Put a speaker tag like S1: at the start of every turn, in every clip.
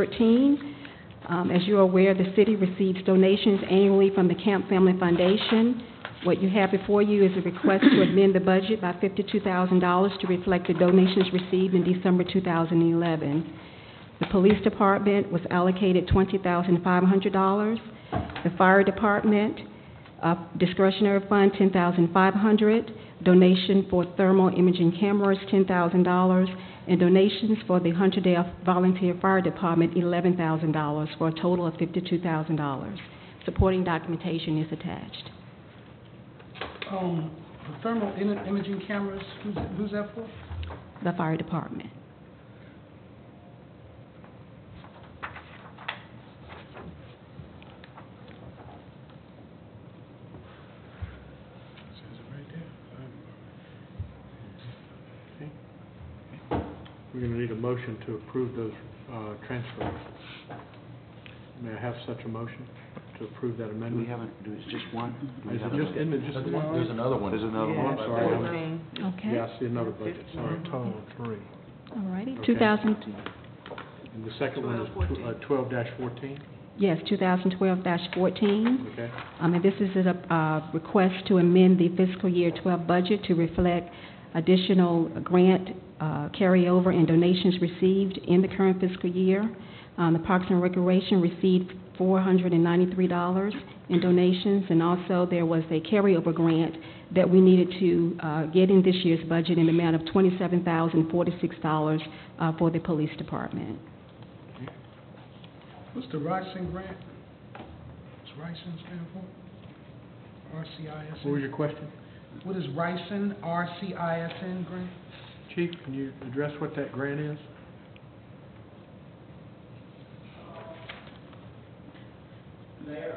S1: thirteen. Um, as you're aware, the city receives donations annually from the Camp Family Foundation. What you have before you is a request to amend the budget by fifty-two thousand dollars to reflect the donations received in December two thousand and eleven. The police department was allocated twenty thousand five hundred dollars. The fire department, uh, discretionary fund, ten thousand five hundred. Donation for thermal imaging cameras, ten thousand dollars. And donations for the Hunterdale Volunteer Fire Department, eleven thousand dollars, for a total of fifty-two thousand dollars. Supporting documentation is attached.
S2: Um, the thermal im- imaging cameras, who's, who's that for?
S1: The fire department.
S3: We're going to need a motion to approve those uh, transfers. May I have such a motion to approve that
S4: Do we
S3: amendment?
S4: haven't, do it's just one? Do we
S3: Is
S4: have
S3: it just,
S4: another?
S3: isn't it just one?
S5: There's another one.
S4: There's another
S3: Oh, I'm
S4: one?
S3: sorry.
S1: Okay.
S3: Yeah, I see another budget, sorry.
S2: Total three.
S1: All righty.
S3: Okay.
S1: Two thousand,
S3: And the second one is uh, twelve fourteen,
S1: yes, two thousand twelve fourteen.
S3: okay?
S1: Um, and this is a, uh, request to amend the fiscal year twelve budget to reflect additional grant, uh, carryover and donations received in the current fiscal year. Um, the Parks and Recreation received four hundred and ninety-three dollars in donations, and also there was a carryover grant that we needed to, uh, get in this year's budget in the amount of twenty-seven thousand forty-six dollars, uh, for the police department.
S2: What's the Rising grant? What's Rising stand for?
S3: What was
S2: RCISN?
S3: your question?
S2: What is Rising, RCISN grant?
S3: Chief, can you address what that grant is?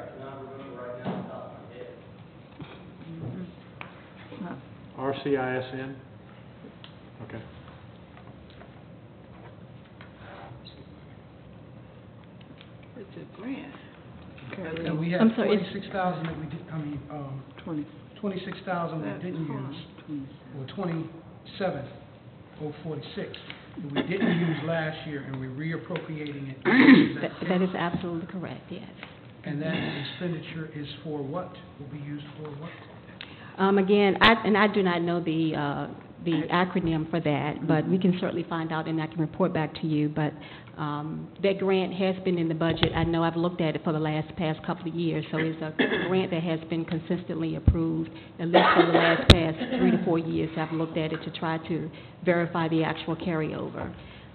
S3: Mayor,
S6: Mm-hmm.
S3: I cannot remember right now off the top of my head. RCISN? Okay.
S6: It's a grant.
S2: And we had
S1: I'm sorry, it's-
S2: twenty-six thousand that we did, I mean, um,
S6: Twenty.
S2: twenty-six thousand we
S6: That's
S2: didn't
S6: fine.
S2: use,
S6: Twenty-seven.
S2: or twenty-seven, oh forty-six, that we didn't use last year, and we're reappropriating it. Is
S1: That,
S2: that
S1: that
S2: correct?
S1: is absolutely correct, yes.
S2: And that expenditure is for what? Will be used for what?
S1: Um, again, I, and I do not know the, uh, the acronym for that, but we can certainly find out and I can report back to you. But, um, that grant has been in the budget. I know I've looked at it for the last past couple of years. So it's a grant that has been consistently approved, at least for the last past three to four years. I've looked at it to try to verify the actual carryover.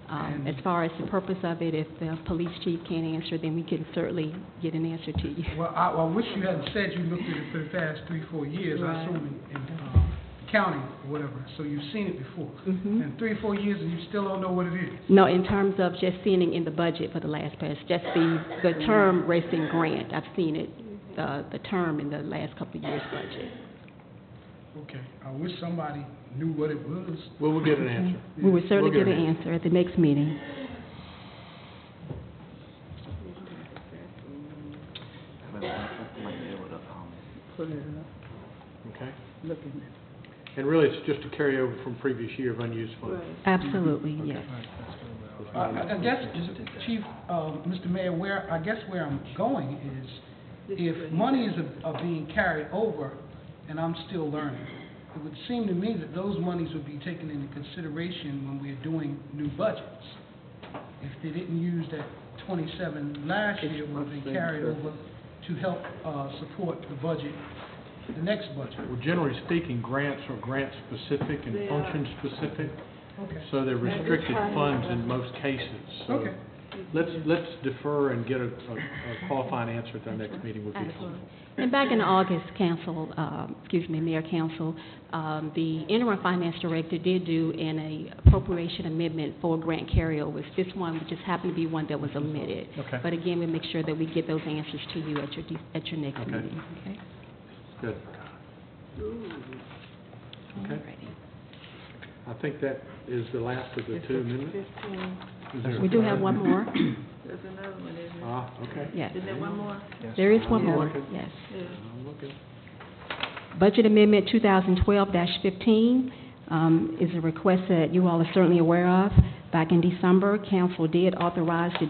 S1: Um, as far as the purpose of it, if the police chief can't answer, then we can certainly get an answer to you.
S2: Well, I, I wish you hadn't said you looked at it for the past three, four years, I
S1: Right.
S2: assume in, in, uh, counting or whatever, so you've seen it before.
S1: Mhm.
S2: And three, four years and you still don't know what it is.
S1: No, in terms of just seeing it in the budget for the last past, just the, the term racing grant, I've seen it, the, the term in the last couple of years' budget.
S3: Mm-hmm.
S2: Okay, I wish somebody knew what it was.
S3: Well, we'll get an
S6: Mm-hmm.
S3: answer.
S1: We will certainly
S3: We'll
S1: get
S3: get
S1: an
S3: it.
S1: answer at the next meeting.
S4: But I might be able to, um,
S6: Put it up,
S3: Okay?
S6: look at
S3: And really, it's just a carryover from previous year of unused
S6: it.
S3: funds.
S1: Absolutely,
S3: Mm-hmm.
S1: yes.
S2: I, I I guess, Chief, uh, Mr. Mayor, where, I guess where I'm going is, if monies are, are being carried over and I'm still learning, it would seem to me that those monies would be taken into consideration when we're doing new budgets. If they didn't use that twenty-seven last year, would have been carried over to help, uh, support the budget, the next budget.
S3: Well, generally speaking, grants are grant-specific and
S6: They are.
S3: function-specific,
S2: Okay,
S3: so they're restricted
S6: Every time.
S3: funds in most cases. So
S2: okay.
S3: Let's, let's defer and get a, a a qualifying answer at our next meeting would be helpful.
S1: Absolutely. And back in August, council, um, excuse me, mayor council, um, the interim finance director did do an a appropriation amendment for grant carryovers. This one just happened to be one that was omitted.
S3: Okay.
S1: But again, we make sure that we get those answers to you at your, de- at your next
S3: Okay.
S1: meeting, okay?
S3: Good. Okay,
S1: Alrighty.
S3: I think that is the last of the two amendments.
S6: Fifteen,
S3: Is there-
S1: We do have one more,
S6: there's another one, isn't it?
S3: Ah, okay.
S1: yes.
S6: Isn't there one more?
S1: There is one
S3: Yeah.
S1: more, yes.
S6: Yeah.
S3: I'm looking.
S1: Budget Amendment 2012-15 um, is a request that you all are certainly aware of. Back in December, council did authorize the